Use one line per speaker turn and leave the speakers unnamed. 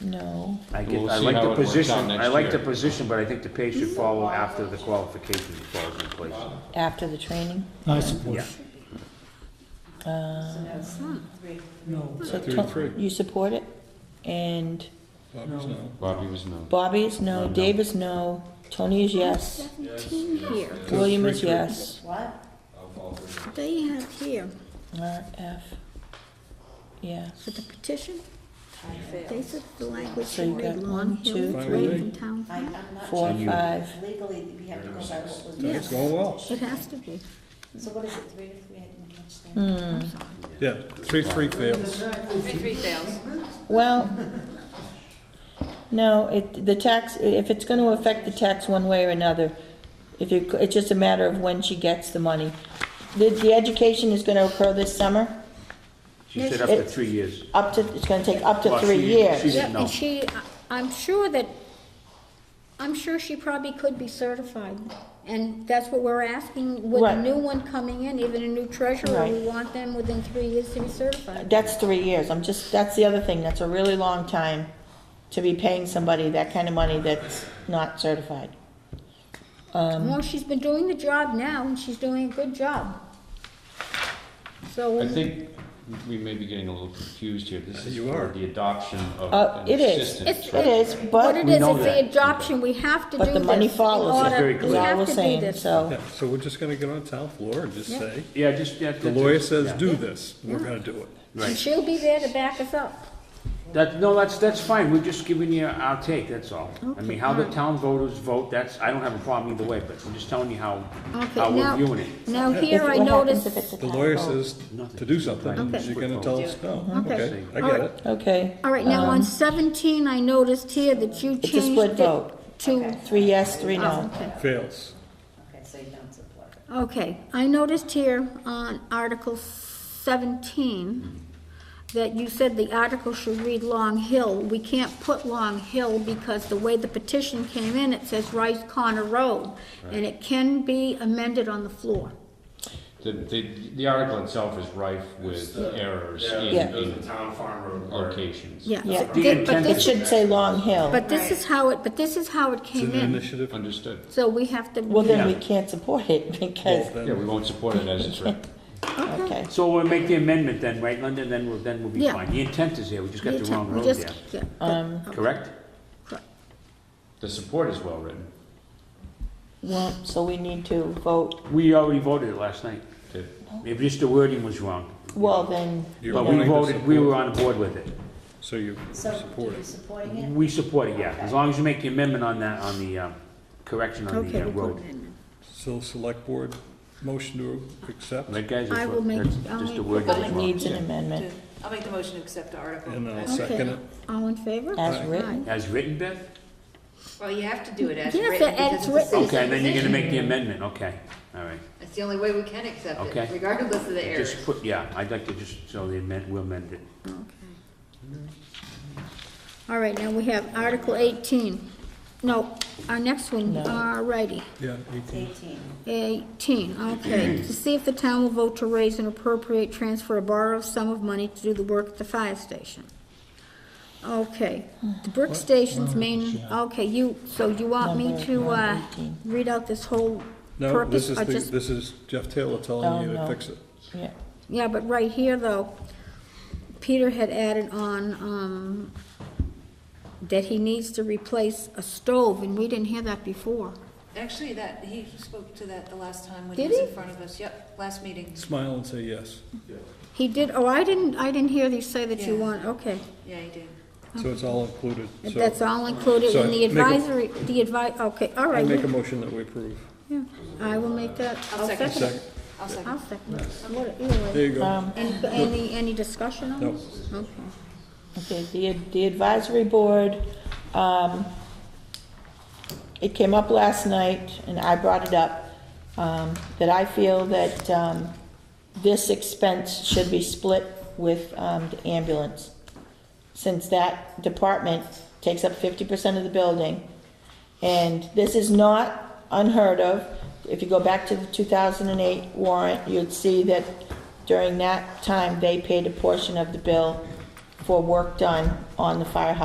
No.
I get,
We'll
I
see
like
how it
the
works out
position,
next
I like the
year.
position, but I think the pay should follow after the qualifications falls in place.
After the training?
I support.
Yeah.
it.
Uh,
No,
so
Three,
Tom-
three.
you support it? And
Bobby's no.
Bobby was no.
Bobby is no, Dave is no, Tony is yes,
Seventeen here,
William is
Three, three.
yes.
they have here,
Mark F, yes.
for the petition, they said the language
So
should
you
read
got
Long
one,
Hill,
two,
Lake
three.
and Town
I, I'm
Hall.
not
Four,
sure.
five.
Legally, we have to go by what was.
Yes.
It's going well.
It has to be.
So what is it, three to three, I didn't catch that.
Hmm,
Yeah, three, three fails.
Three, three fails.
well, no, it, the tax, if it's gonna affect the tax one way or another, if you, it's just a matter of when she gets the money. The, the education is gonna occur this summer,
She said up to
It-
three years.
up to, it's gonna take up to
Well,
three
she-
years.
she-
Yeah,
didn't know.
and she, I- I'm sure that, I'm sure she probably could be certified. And that's what we're asking with a
Right.
new one coming in, even a new treasurer, we want them within three years to be certified.
That's three years, I'm just, that's the other thing, that's a really long time to be paying somebody that kind of money that's not certified. Um,
Well, she's been doing the job now, and she's doing a good job.
I
So,
think we may be getting a little confused here. This is
You
for
are.
the adoption of
Uh,
an
it is.
assistant.
It is,
what it
but,
is,
know
it's
that.
the adoption, we have to do this.
but the money
in
follows
order-
very
it,
clear.
is
we
all
have
we're
to do
saying,
this.
so,
Yeah, so we're just gonna get on town floor and just
Yeah.
say,
Yeah, just, that- that's.
the lawyer says
yeah.
do this, we're gonna do it.
And
Right.
she'll be there to back us up.
That, no, that's, that's fine, we're just giving you our take, that's all. I mean, how the town voters vote, that's, I don't have a problem either way, but I'm just telling you how, how
Okay,
we're
now,
viewing it.
now
if,
here I
what happens
noticed,
if it's a
The lawyer
tax vote?
says to do something,
Okay.
you're gonna tell us no.
Okay.
I get it.
Okay,
all right, now on 17, I noticed here that you
it's a
changed
split
it to...
vote, three yes, three no.
Oh, okay.
Fails.
Okay, so you don't support it.
Okay, I noticed here on Article 17 that you said the article should read Long Hill. We can't put Long Hill because the way the petition came in, it says Rice Corner Road, and it can be amended on the floor.
The, the, the article itself is rife with errors
Yeah.
in, in
town farm road
locations.
Yeah.
Yeah.
but
The
thi- but
intent
It
this-
should say Long Hill,
But this is how it, but this is how it
It's
came
an
in,
initiative.
Understood.
so we have to.
well, then we
Yeah.
can't support it, because,
Well, then-
Yeah, we won't support it as it's written.
okay,
So we'll make the amendment then, right, London, then we'll, then we'll be
Yeah.
fine. The intent is there, we just got the wrong
We
road
just-
there,
yeah, but-
um,
correct?
The support is well written.
well, so we need to vote,
We already voted it last night.
Did-
If just the wording was wrong.
well, then,
You're
But we
wanting to
voted, we were
support,
on board with it.
So you
So, do
support
you
it.
supporting it?
We support it, yeah, as long as you make the amendment on that, on the, um, correction on
Okay,
the uh,
we put
road.
it in.
So select board, motion to accept.
Right, guys,
I
that's
will
what,
make-
that's
I'll
just
make
the
the
wording
but
is
it
wrong.
needs an amendment,
I'll make the motion to accept
uh,
the article.
And I'll
as-
second it.
Okay, all in favor?
as
Aye.
written.
As written, Beth?
Well, you have to do it as
Yes,
written.
and
because
it's
a
written.
Okay, then you're gonna make the
decision.
amendment, okay, all right.
That's the only way we can accept
Okay.
it, regardless of the errors.
Just put, yeah, I'd like to just, so the amend, we'll amend it.
All right, now we have Article 18. No, our next one, all righty,
Yeah, eighteen.
Eighteen.
18, okay. To see if the town will vote to raise and appropriate transfer a borrowed sum of money to do the work at the fire station. Okay, the brick station's main, okay, you, so you want me to uh, read out this whole
No, this
purpose?
is,
or
the-
just-
this is Jeff Taylor
Oh,
telling you to
no.
fix it.
Yeah,
Yeah, but right here, though, Peter had added on, um, that he needs to replace a stove, and we didn't hear that before.
Actually, that, he spoke to that the last time when
Did
he was in
he?
front of us. Yep, last meeting.
Smile and say yes.
He did, oh, I didn't, I didn't hear thee say that you
Yeah.
want, okay.
Yeah, he did.
So it's all included. So
That's all included in the
So, make a-
advisory, the advi, okay, all
I
right.
make a motion that we approve.
yeah, I will make that.
I'll second.
it.
Second.
I'll second.
I'll second. it. What- either
There
way.
you go.
um,
Any, any, any discussion on
No.
this? Okay.
Okay, the, the advisory board, um, it came up last night, and I brought it up, um, that I feel that, um, this expense should be split with, um, the ambulance. Since that department takes up fifty percent of the building, and this is not unheard of. If you go back to the 2008 warrant, you'd see that during that time, they paid a portion of the bill for work done on the firehouse